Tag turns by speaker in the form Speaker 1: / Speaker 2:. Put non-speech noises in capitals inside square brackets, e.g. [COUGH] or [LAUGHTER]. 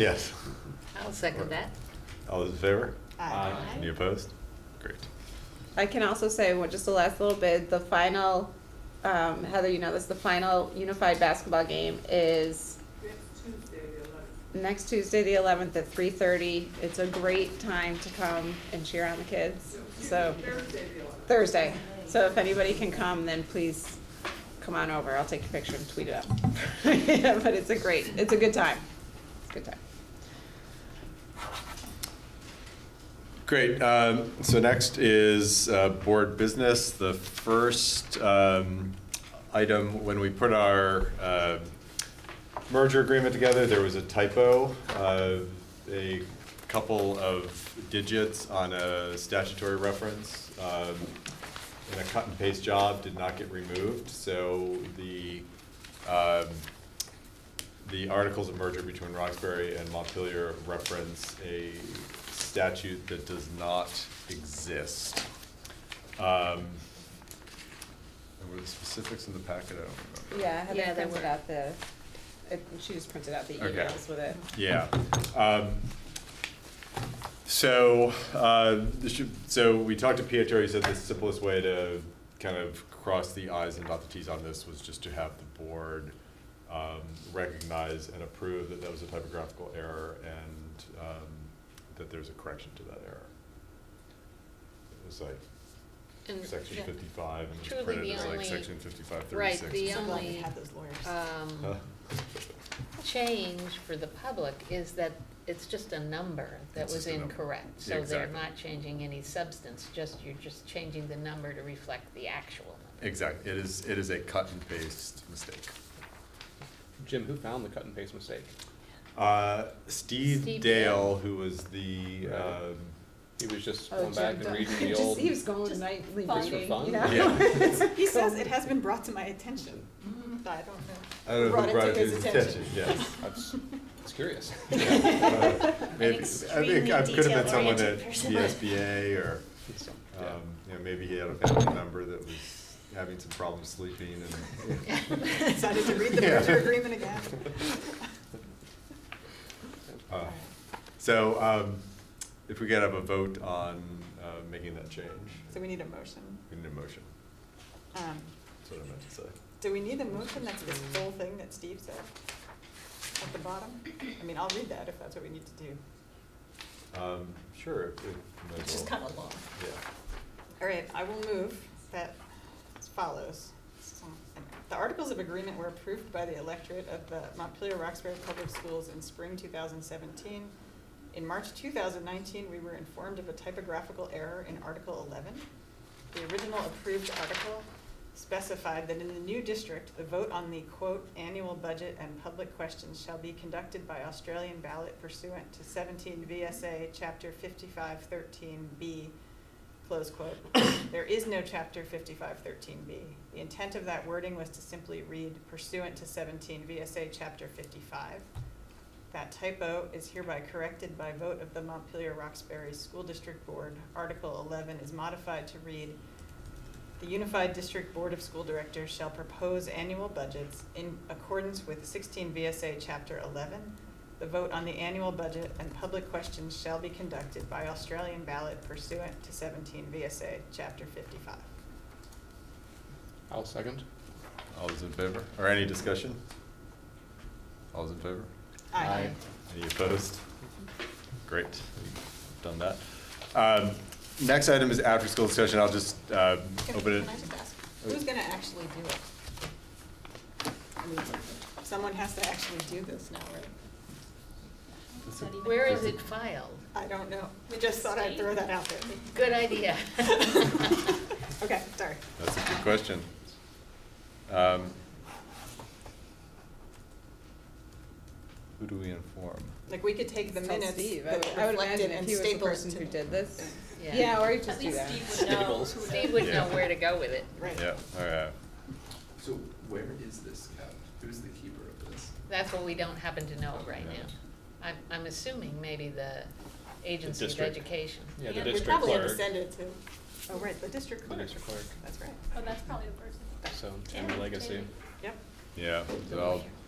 Speaker 1: Yes.
Speaker 2: I'll second that.
Speaker 1: All those in favor?
Speaker 3: Aye.
Speaker 1: Any opposed? Great.
Speaker 4: I can also say, well, just the last little bit, the final, um, Heather, you know this, the final unified basketball game is next Tuesday, the eleventh at three thirty. It's a great time to come and cheer on the kids, so. Thursday. So if anybody can come, then please come on over. I'll take your picture and tweet it out. Yeah, [LAUGHS] But it's a great, it's a good time. It's a good time.
Speaker 1: Great. Um, so next is uh, board business. The first um, item, when we put our uh, merger agreement together, there was a typo, uh, a couple of digits on a statutory reference. Um, in a cut and paste job did not get removed, so the um, the articles of merger between Roxbury and Montpelier reference a statute that does not exist. Um, And were the specifics in the packet? I don't remember.
Speaker 4: Yeah,
Speaker 2: Yeah,
Speaker 4: Heather
Speaker 2: they
Speaker 4: printed
Speaker 2: were.
Speaker 4: out the, it- she just printed out the
Speaker 1: Okay.
Speaker 4: emails with it.
Speaker 1: Yeah. Um, So, uh, this should- so we talked to Pietro, he said the simplest way to kind of cross the i's and dot the t's on this was just to have the board um, recognize and approve that that was a typographical error and um, that there's a correction to that error. It was like
Speaker 2: And, Mm, yeah.
Speaker 1: section fifty-five and it was
Speaker 2: Truly
Speaker 1: printed
Speaker 2: the
Speaker 1: as like
Speaker 2: only-
Speaker 1: section fifty-five
Speaker 2: right,
Speaker 1: thirty-six.
Speaker 2: the
Speaker 3: So glad we
Speaker 2: only,
Speaker 3: had those lawyers.
Speaker 1: [LAUGHS]
Speaker 2: Um, change for the public is that it's just a number that
Speaker 1: It's
Speaker 2: was
Speaker 1: just a number.
Speaker 2: incorrect.
Speaker 1: Yeah,
Speaker 2: So they're
Speaker 1: exactly.
Speaker 2: not changing any substance, just, you're just changing the number to reflect the actual number.
Speaker 1: Exactly, it is, it is a cut and paste mistake.
Speaker 5: Jim, who found the cut and paste mistake?
Speaker 1: Uh, Steve,
Speaker 2: Steve
Speaker 1: Dale, who was the
Speaker 5: Right. [LAUGHS]
Speaker 1: um,
Speaker 5: He was just
Speaker 4: Oh,
Speaker 5: going back
Speaker 4: Jim,
Speaker 5: and
Speaker 4: don't-
Speaker 5: reading
Speaker 4: [LAUGHS]
Speaker 5: the
Speaker 4: just-
Speaker 5: old.
Speaker 4: He
Speaker 5: [LAUGHS]
Speaker 4: was going
Speaker 3: Just
Speaker 4: nightly
Speaker 3: fun.
Speaker 5: Just for
Speaker 4: reading,
Speaker 5: fun?
Speaker 4: you know? [LAUGHS]
Speaker 1: Yeah.
Speaker 3: He says it has been brought to my attention. Mm, I don't know.
Speaker 1: [LAUGHS] I don't know
Speaker 3: Brought
Speaker 1: who
Speaker 3: it
Speaker 1: brought
Speaker 3: to
Speaker 1: it
Speaker 3: his attention.
Speaker 1: Yes,
Speaker 5: I was, I was curious.
Speaker 1: Uh, maybe I think
Speaker 3: extremely
Speaker 1: I could have been someone at
Speaker 3: detail-oriented person.
Speaker 1: the SBA or
Speaker 5: So,
Speaker 1: um,
Speaker 5: [LAUGHS] yeah.
Speaker 1: you know, maybe he had a family member that was having some problems sleeping and.
Speaker 3: [LAUGHS] Decided to read
Speaker 1: [LAUGHS]
Speaker 3: the
Speaker 1: Yeah.
Speaker 3: merger agreement again.
Speaker 1: Uh, so um, if we could have a vote on uh, making that change,
Speaker 3: So we need a motion.
Speaker 1: we need a motion.
Speaker 3: Um,
Speaker 1: That's what I meant to say.
Speaker 3: Do we need a motion that's this whole thing that Steve said at the bottom? I mean, I'll read that if that's what we need to do.
Speaker 1: Um, sure. if- if- might as
Speaker 3: It's just
Speaker 1: well.
Speaker 3: kind of long.
Speaker 1: Yeah.
Speaker 3: All right, I will move that as follows. So, The Articles of Agreement were approved by the electorate of the Montpelier Roxbury Public Schools in spring two thousand seventeen. In March two thousand nineteen, we were informed of a typographical error in Article eleven. The original approved article specified that in the new district, the vote on the quote, "annual budget and public questions shall be conducted by Australian ballot pursuant to seventeen VSA, chapter fifty-five thirteen B, close quote. [COUGHS] There is no chapter fifty-five thirteen B. The intent of that wording was to simply read pursuant to seventeen VSA chapter fifty-five. That typo is hereby corrected by vote of the Montpelier Roxbury School District Board. Article eleven is modified to read, "The Unified District Board of School Directors shall propose annual budgets in accordance with sixteen VSA chapter eleven. The vote on the annual budget and public questions shall be conducted by Australian ballot pursuant to seventeen VSA chapter fifty-five.
Speaker 5: I'll second.
Speaker 1: All those in favor? Or any discussion? All those in favor?
Speaker 3: Aye.
Speaker 1: Any opposed? Great, we've done that. Um, Next item is after-school discussion. I'll just uh,
Speaker 3: Can
Speaker 1: open it.
Speaker 3: can I just ask,
Speaker 4: Oh.
Speaker 3: who's gonna actually do it? I mean, Someone has to actually do this now, right?
Speaker 2: Where is it filed?
Speaker 3: I don't know, I just thought I'd throw that out there.
Speaker 2: Good idea. [LAUGHS]
Speaker 3: Okay, sorry.
Speaker 1: That's a good question. Um, Who do we inform?
Speaker 3: Like, we could take the
Speaker 4: Tell
Speaker 3: minutes
Speaker 4: Steve. I
Speaker 3: that
Speaker 4: would- I would
Speaker 3: reflect it
Speaker 4: imagine if
Speaker 3: and
Speaker 4: he was the
Speaker 3: staple it
Speaker 4: person
Speaker 3: to-
Speaker 4: who did this.
Speaker 2: Yeah.
Speaker 4: Yeah, or you just do
Speaker 6: least
Speaker 4: that.
Speaker 6: Steve would know.
Speaker 5: Staples.
Speaker 6: who to-
Speaker 2: Steve would
Speaker 1: Yeah.
Speaker 2: know where to go with it.
Speaker 3: Right.
Speaker 1: Yeah, all right.
Speaker 7: So where is this kept? Who's the keeper of this?
Speaker 2: That's what we don't happen to know right
Speaker 1: Yeah.
Speaker 2: now. I'm, I'm assuming maybe the Agency of
Speaker 5: district.
Speaker 2: Education.
Speaker 5: Yeah, the
Speaker 3: We
Speaker 5: district
Speaker 3: probably have
Speaker 5: clerk.
Speaker 3: to send it to, oh, right, the district
Speaker 5: The
Speaker 3: clerk.
Speaker 5: district clerk.
Speaker 3: That's right,
Speaker 6: Oh, that's probably the person.
Speaker 5: So, and the legacy.
Speaker 3: yep.
Speaker 1: Yeah, so I'll